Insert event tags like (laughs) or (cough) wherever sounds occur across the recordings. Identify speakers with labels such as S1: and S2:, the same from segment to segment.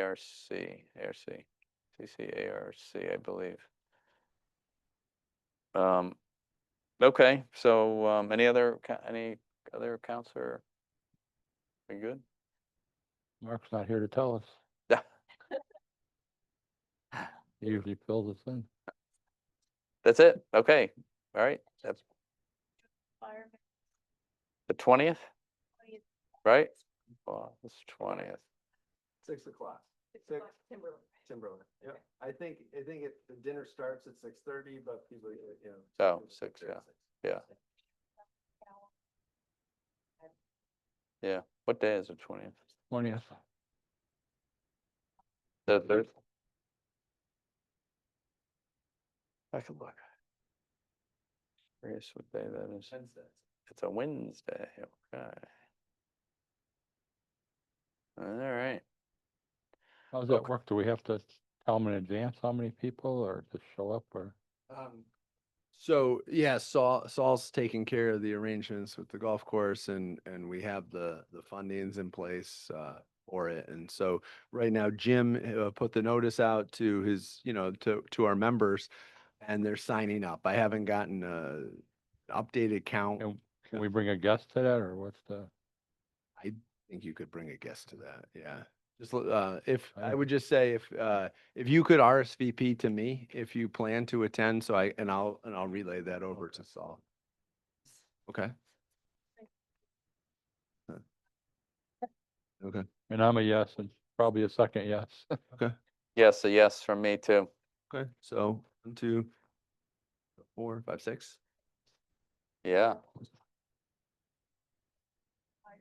S1: ARC, ARC, CCARC, I believe. Um, okay, so, um, any other, co- any other accounts are, are good?
S2: Mark's not here to tell us.
S1: Yeah.
S2: (laughs) He usually fills us in.
S1: That's it, okay, all right, that's
S3: Fireman,
S1: the twentieth,
S3: twentieth,
S1: right? Well, it's twentieth,
S4: Six o'clock,
S3: six
S4: Six.
S3: o'clock, Timberland.
S4: Timberland, yeah, I think, I think it, the dinner starts at six thirty, but people, you know.
S1: Oh,
S4: people
S1: six,
S4: there at
S1: yeah, yeah.
S3: Now,
S1: yeah. What day is the twentieth?
S2: Twentieth,
S1: The third? I can look. Curious what day that is.
S4: Wednesday.
S1: It's a Wednesday, okay. All right,
S2: how's that
S1: Okay.
S2: work? Do we have to tell them in advance how many people or just show up or?
S4: Um, So, yeah, Saul, Saul's taking care of the arrangements with the golf course and, and we have the, the fundings in place, uh, for it. And so right now Jim, uh, put the notice out to his, you know, to, to our members and they're signing up. I haven't gotten a updated count. I
S2: And can we bring a guest to that or what's the?
S4: think you could bring a guest to that. Yeah. Just, l- uh, if, I
S2: Fine.
S4: would just say if, uh, if you could RSVP to me, if you plan to attend, so I, and I'll, and I'll relay that over to Saul. Okay. Huh. Okay,
S2: And I'm a yes and probably a second yes. (laughs)
S1: yes, a yes from me too.
S4: okay, so one, two, four, five, six.
S1: Yeah,
S3: fire-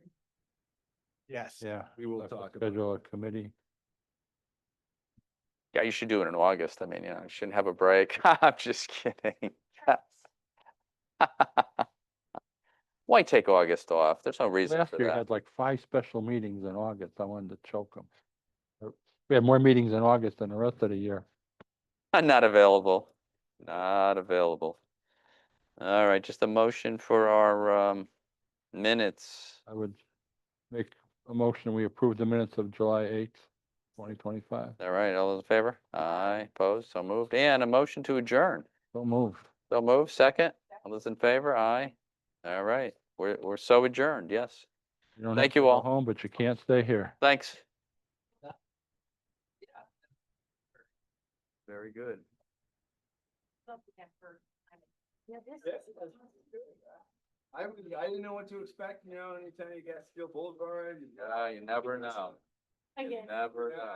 S4: Yes.
S2: Yeah.
S4: We will
S2: Have to
S4: talk about it.
S2: Schedule a committee.
S1: yeah, you should do it in August. I mean, you know, you shouldn't have a break. (laughs) I'm just kidding. (laughs) Why take August off? There's no reason
S2: Last
S1: for
S2: year
S1: that.
S2: had like five special meetings in August. I wanted to choke them. We had more meetings in August than the rest of the year.
S1: I'm (laughs) not available, not available. All right, just a motion for our, um, minutes.
S2: I would make a motion, we approve the minutes of July eighth, twenty twenty-five.
S1: All right, all those in favor? Aye, opposed, so moved, and a motion to adjourn.
S2: So moved.
S1: So move, second. All those in favor? Aye. All right, we're, we're so adjourned, yes.
S2: You don't have
S1: Thank
S2: to
S1: you
S2: go
S1: all.
S2: Home, but you can't stay here.
S1: Thanks.
S4: Very good.
S3: love the effort. I mean, Yeah, this
S4: Yeah.
S3: is.
S4: I, was- I didn't know what to expect, you uh, know, anytime you got Steel Boulevard. you got-
S1: Yeah, you never know.
S3: Again.
S1: Never
S4: Yeah.